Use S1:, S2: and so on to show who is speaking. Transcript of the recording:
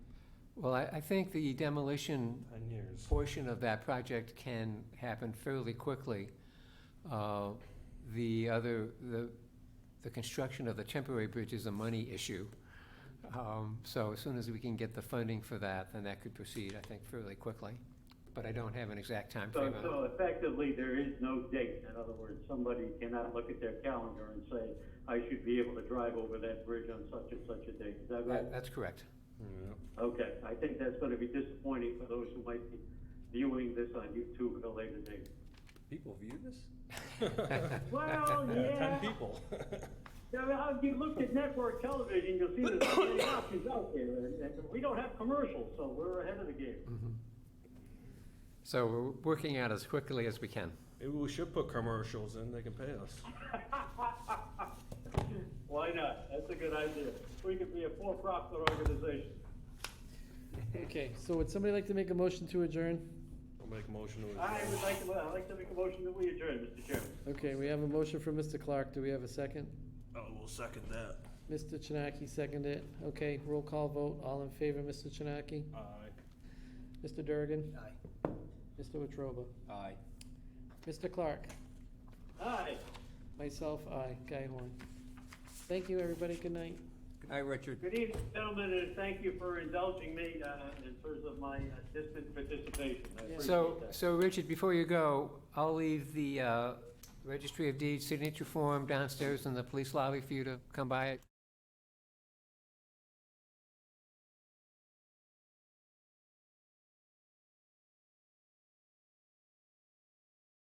S1: Well, I, I think the demolition
S2: Ten years.
S1: portion of that project can happen fairly quickly. Uh, The other, the, the construction of the temporary bridge is a money issue. Um, So as soon as we can get the funding for that, then that could proceed, I think, fairly quickly. But I don't have an exact
S3: So,
S1: timeframe on it.
S3: so effectively, there is no date. In other words, somebody cannot look at their calendar and say, I should be able to drive over that bridge on such and such a date. Is that right?
S1: That- That's correct.
S2: Yeah.
S3: Okay, I think that's gonna be disappointing for those who might be viewing this on YouTube at a later date.
S2: People view this?
S3: Well,
S2: Ten
S3: yeah.
S2: people.
S3: Now, now, if you looked at network television, you'll see there's so many options out there, and, and we don't have commercials, so we're ahead of the game.
S1: So we're working out as quickly as we can.
S2: Maybe we should put commercials in, they can pay us.
S3: Why not? That's a good idea. We could be a for-profit organization.
S4: Okay, so would somebody like to make a motion to adjourn?
S2: I'll make a motion to
S3: I
S2: adjourn.
S3: would like to, I'd like to make a motion that we adjourn, Mr. Chairman.
S4: Okay, we have a motion from Mr. Clark. Do we have a second?
S2: Oh, we'll second that.
S4: Mr. Chinaki seconded it. Okay, roll call vote. All in favor, Mr. Chinaki?
S2: Aye.
S4: Mr. Durgan? Aye. Mr. Wetruba?
S1: Aye.
S4: Mr. Clark?
S3: Aye.
S4: Myself, aye. Guy Horn. Thank you, everybody. Good night.
S1: Hi, Richard.
S3: Good evening, gentlemen, and thank you for indulging me, uh, in terms of my uh, distant participation. I appreciate
S1: So,
S3: that.
S1: so Richard, before you go, I'll leave the uh, Registry of Deeds signature form downstairs in the police lobby for you to come by it.